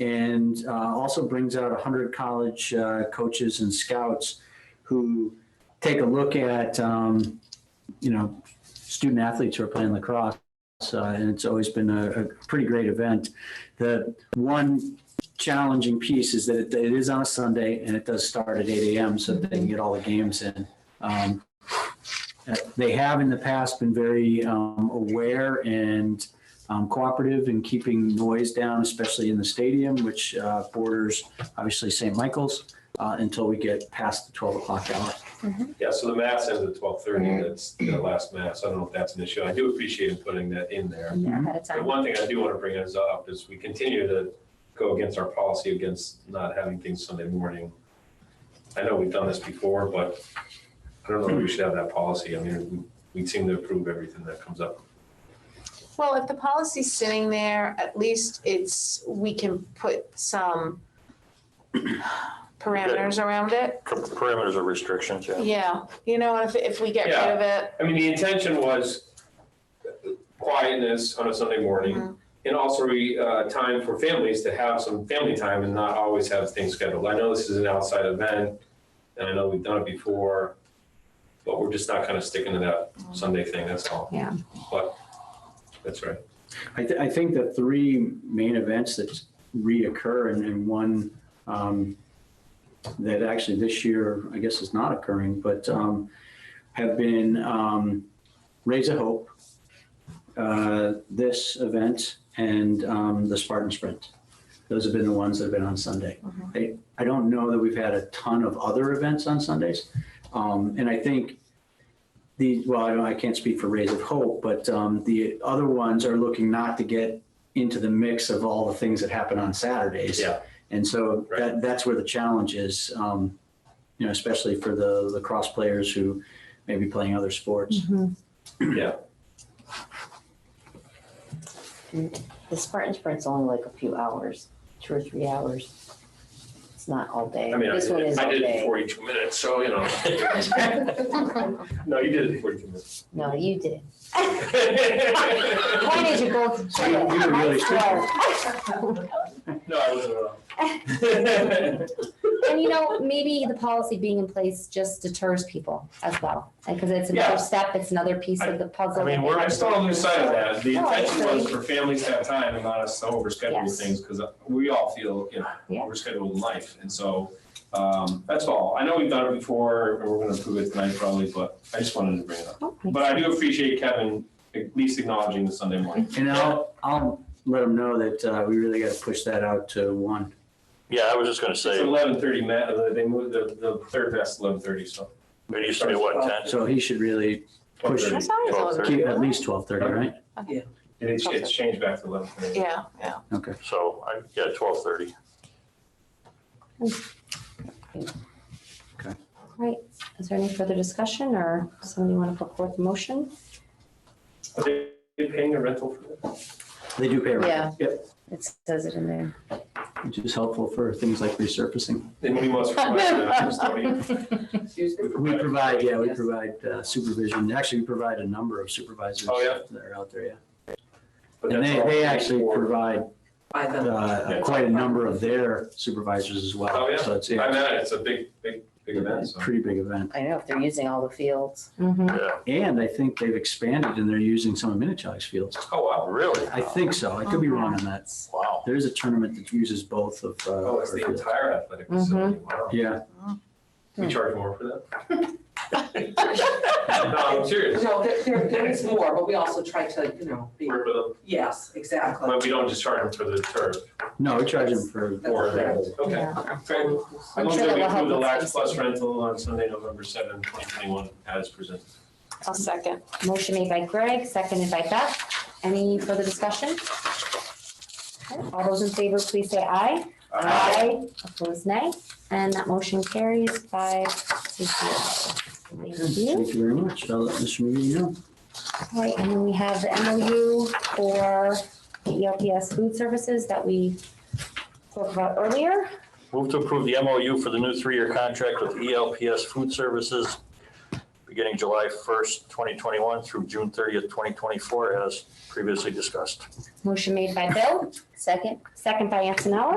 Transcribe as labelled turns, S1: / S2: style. S1: and uh, also brings out 100 college uh, coaches and scouts who take a look at, um, you know, student athletes who are playing lacrosse. Uh, and it's always been a, a pretty great event. The one challenging piece is that it, it is on a Sunday and it does start at 8 a.m. so that they can get all the games in. Um, uh, they have in the past been very um, aware and um, cooperative in keeping noise down, especially in the stadium, which uh, borders obviously St. Michael's uh, until we get past the 12 o'clock hour.
S2: Yeah, so the mass ends at twelve thirty, that's the last mass, I don't know if that's an issue, I do appreciate him putting that in there.
S3: Yeah, ahead of
S2: The
S3: time.
S2: one thing I do want to bring us up is we continue to go against our policy against not having things Sunday morning. I know we've done this before, but I don't know if we should have that policy, I mean, we we seem to approve everything that comes up.
S4: Well, if the policy's sitting there, at least it's, we can put some parameters around it.
S5: Parameters or restrictions, yeah.
S4: Yeah, you know, if, if we get rid of it,
S2: I mean, the intention was quietness on a Sunday morning and also uh, time for families to have some family time and not always have things scheduled. I know this is an outside event and I know we've done it before, but we're just not kind of sticking to that Sunday thing, that's all.
S3: Yeah.
S2: But, that's right.
S1: I, th- I think the three main events that reoccur and, and one um, that actually this year, I guess, is not occurring, but um, have been um, Raise a Hope, uh, this event, and um, the Spartan Sprint. Those have been the ones that have been on Sunday. I, I don't know that we've had a ton of other events on Sundays. Um, and I think the, well, I don't- I can't speak for Rays of Hope, but um, the other ones are looking not to get into the mix of all the things that happen on Saturdays.
S2: Yeah.
S1: And so that, that's where the challenge is, um, you know, especially for the lacrosse players who may be playing other sports.
S2: Mm-hmm.
S6: The Spartan Sprint's only like a few hours, two or three hours. It's not all day.
S2: I mean, I
S6: This one
S2: did
S6: is
S2: I
S6: all
S2: did it in
S6: day.
S2: forty-two minutes, so, you know. No, you did it in forty-two minutes.
S6: No, you did. Why did you both?
S1: So you- you were really
S6: Swear.
S2: No, I wasn't at all.
S6: And you know, maybe the policy being in place just deters people as well, because it's
S2: Yeah.
S6: another step, it's another piece of the puzzle.
S2: I mean,
S6: that
S2: we're,
S6: they
S2: I
S6: have to
S2: still don't lose sight of that. The
S6: No, I
S2: intention was
S6: agree.
S2: for families to have time and not us to overschedule
S6: Yes.
S2: things, because we all feel, you know,
S6: Yeah.
S2: overscheduled in life, and so, um, that's all. I know we've done it before, and we're gonna prove it tonight probably, but I just wanted to bring it up.
S6: Oh,
S2: But I do appreciate Kevin at least acknowledging the Sunday morning.
S1: And I'll, I'll let them know that uh, we really got to push that out to one.
S5: Yeah, I was just gonna
S2: It's
S5: say,
S2: eleven thirty, Matt, they moved the, the third vest eleven thirty, so.
S5: it used to be what, ten?
S1: So he should really Push it.
S4: I thought it was
S5: Twelve
S4: on.
S5: thirty.
S1: keep at least 12:30, right?
S2: And it's, it's changed back to eleven thirty.
S4: Yeah, yeah.
S1: Okay.
S5: So, I, yeah, twelve thirty.
S6: Right, is there any further discussion or somebody want to put forth a motion?
S2: Are they paying a rental for that?
S1: They do pay rent,
S6: Yeah. It says it in there.
S1: which is helpful for things like resurfacing.
S2: And we must provide that custodian.
S1: We provide, yeah, we provide uh, supervision. Actually, we provide a number of supervisors
S2: Oh, yeah.
S1: that are out there, yeah.
S2: But
S1: And
S2: that's
S1: they,
S2: all
S1: they
S2: paid
S1: actually
S2: for.
S1: provide
S7: by them.
S1: uh,
S2: Yeah.
S1: quite a number of their supervisors as well.
S2: Oh, yeah.
S1: So it's
S2: I
S1: yeah,
S2: mean, it's a big, big, big event,
S1: it's a
S2: so.
S1: pretty big event.
S6: I know, if they're using all the fields.
S3: Mhm.
S5: Yeah,
S1: And I think they've expanded and they're using some of Minichog's fields.
S2: Oh, wow.
S5: really?
S1: I think so. I could be wrong on that.
S5: Wow.
S1: There is a tournament that uses both of. uh,
S2: Oh, it's the
S1: our fields.
S2: entire athletic
S6: Mm-hmm.
S2: facility. Wow.
S1: Yeah,
S2: We charge more for that? No, I'm serious.
S7: No, there, there, there is more, but we also try to, you know, be,
S2: Work with them.
S7: yes, exactly.
S2: But we don't just charge them for the turf
S1: no, we charge them for,
S2: or
S7: That's
S2: the, okay. Great. I
S6: I'm
S2: move
S6: sure
S2: that
S6: that
S2: we
S6: will
S2: approve
S6: help
S2: the
S6: with
S2: Lax
S6: space.
S2: Plus rental on Sunday, November seventh, twenty twenty-one, as presented.
S4: I'll second.
S6: Motion made by Greg, seconded by Beth. Any further discussion? Okay, All those in favor, please say aye. Opposed, nay. And that motion carries five to zero. Thank you.
S1: thank you very much. I'll let Mr. McGee know.
S6: All right, and then we have the MOU for the E ELPS food services that we spoke about earlier.
S5: Move to approve the MOU for the new three-year contract with E ELPS Food Services beginning July first, twenty twenty-one through June thirtieth, twenty twenty-four, as previously discussed.
S6: Motion made by Bill, second, second by Antonella.